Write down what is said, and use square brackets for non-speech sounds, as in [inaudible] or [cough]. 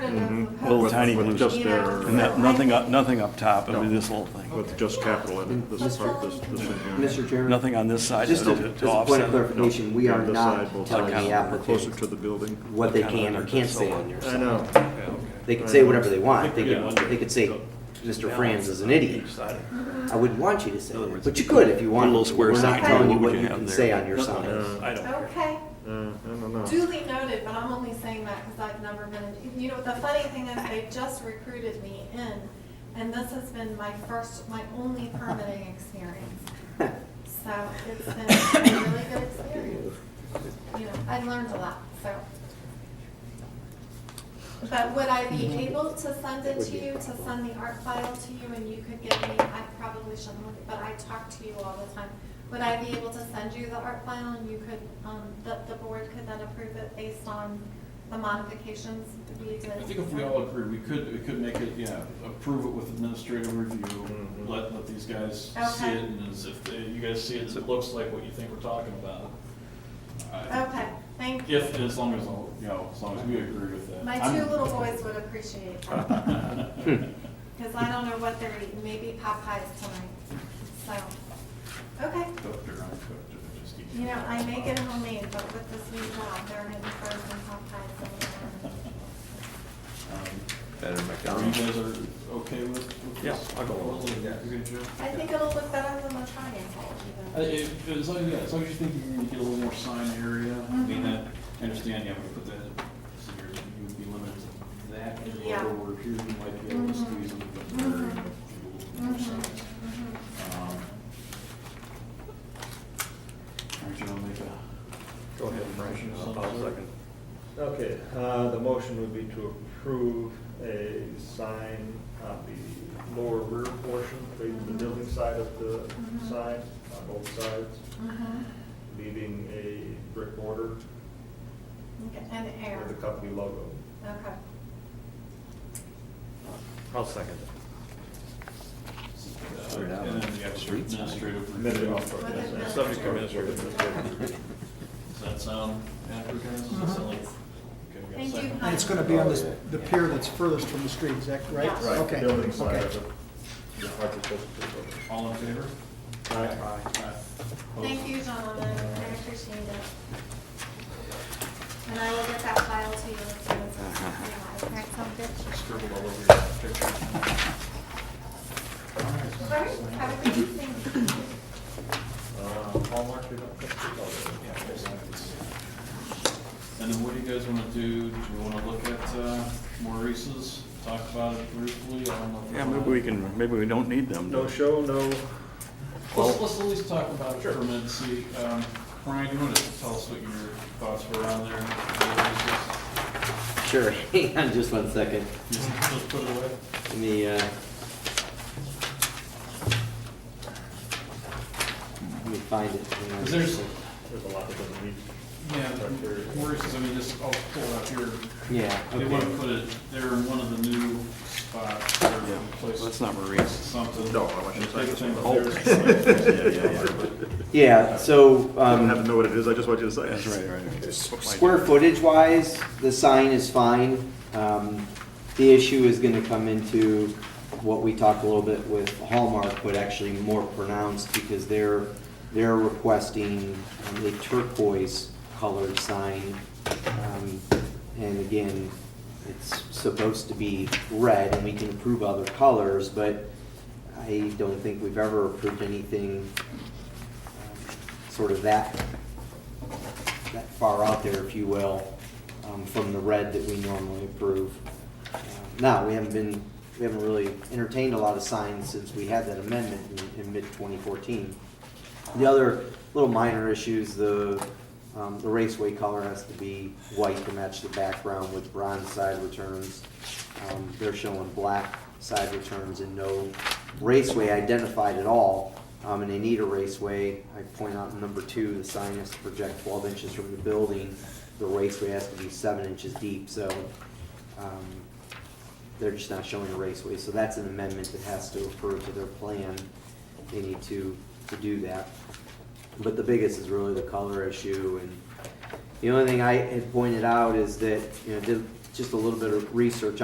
little Mm-hmm. With- tiny blue With stuff. just their, And that, nothing up, nothing up top, it'll be this little thing. with just capital in it, this is, part- this, this in here. Mr. Chairman, Nothing on this side just to a, just to a point offset. it. of clarification, we are This side, not both telling sides. the Closer to applicant the building. what they can or can't say on your I side. know. They can say whatever they want, they could, they could say, Mr. Franz is an idiot. I wouldn't want you to say that, but you could if you want. Little square We're sign, not telling you what would what you you have can there? say on your side. [laughs] Uh, I don't care. Okay, uh, I don't know. duly noted, but I'm only saying that because I've never been, you know, the funny thing is they just recruited me in. And this has been my first, my only permitting experience. So it's been a really good experience. You know, I learned a lot, so. But would I be able to send it to you, to send the art file to you and you could give me, I probably shouldn't, look, but I talk to you all the time. Would I be able to send you the art file and you could, um, the, the board could then approve it based on the modifications we did? I think if we all agree, we could, we could make it, yeah, approve it with administrative review, Mm-hmm. Mhm. let, let these guys see Okay. it, and as if they- you guys see it, it looks like what you think we're talking about. I- Okay, thank you. If, as long as, all- you know, as long as we agree with that. My two I'm- little boys would appreciate that. [laughs] Because I don't know what they're eating, maybe Popeyes tonight, so, okay. Cooked or uncooked, or just eat. You know, I make it homemade, but with this new job, they're in frozen Popeyes. everywhere. Um, Better Are you McDonald's. guys are okay with? with Yeah, this? I'll go along with You're that. good, Joe? I think it'll look better than the triangle Uh, even. if- As long, yeah, as long as you think you're gonna get a little more sign area, I Mm-hmm. mean, that, I understand, yeah, we put that, so you're, you would be limited to that, and Yeah. over here, you might be able to Mhm. squeeze a little bit more, and Mhm. do a little more Mhm, signs. mhm. Um, Aren't you gonna make a? Go ahead, Brian. I'll- I'll second. Okay, uh, the motion would be to approve a sign on the lower rear portion, the the building side of the Mm-hmm. Mhm. sign, on both sides, Mhm. leaving a brick border Okay, And air, with the company logo. okay. I'll second Uh, Sort it out. And then the extra Streets. administrative. Minute review. off. With the- Subject to administrative. it. Does that sound accurate, guys? Does that sound like- okay, we got a Mm-hmm. Thank you, second? And it's gonna be on this, the pier that's furthest from the street, is that right? Yeah. Oh, Right, the Okay, building side okay. of it. Yeah, like it's supposed to be. All in favor? Aye. Thank you, gentlemen, I appreciate it. And I will get that file to you as soon as it's realized, right, so bitch. Scribbled all over your picture. All right, have a good evening. Uh, Hallmark, you don't think it's all there. And then what do you guys wanna do? Do you wanna look at uh, Maurice's, talk about it briefly? I don't know if Yeah, maybe we can, maybe we don't need them. No show, no, Let's, let's at least talk about it for a minute, see, um, Brian, you wanna tell us what your thoughts were on there? Sure, [laughs] hang on just one second. Just just put it away? Let me, uh, let me find it. Hang on 'Cause just a there's- there's a lot that doesn't need. Yeah, Maurice's, I mean, just, I'll pull it up here. sec. Yeah, They wanna okay. put it there in one of the new spots or Yeah, place. that's not Maurice's. Something. No, I want you to Big say thing it's- up there [laughs] is the sign. [laughs] Um, Yeah, so, I um. don't have to know what it is, I just want you to say it. That's right, right. Square footage wise, the sign is fine. Um, The issue is gonna come into what we talked a little bit with Hallmark, but actually more pronounced because they're, they're requesting um, a turquoise colored sign. Um, And again, it's supposed to be red and we can approve other colors, but I don't think we've ever approved anything um, sort of that that far out there, if you will, um, from the red that we normally approve. Uh, Now, we haven't been, we haven't really entertained a lot of signs since we had that amendment in, in mid-2014. The other little minor issues, the, um, the raceway color has to be white to match the background with bronze side returns. Um, They're showing black side returns and no raceway identified at all. Um, and they need a raceway. I point out in number two, the sign has to project twelve inches from the building. The raceway has to be seven inches deep, so, um, they're just not showing a raceway. So that's an amendment that has to refer to their plan. They need to, to do that. But the biggest is really the color issue and the only thing I had pointed out is that, you know, did just a little bit of research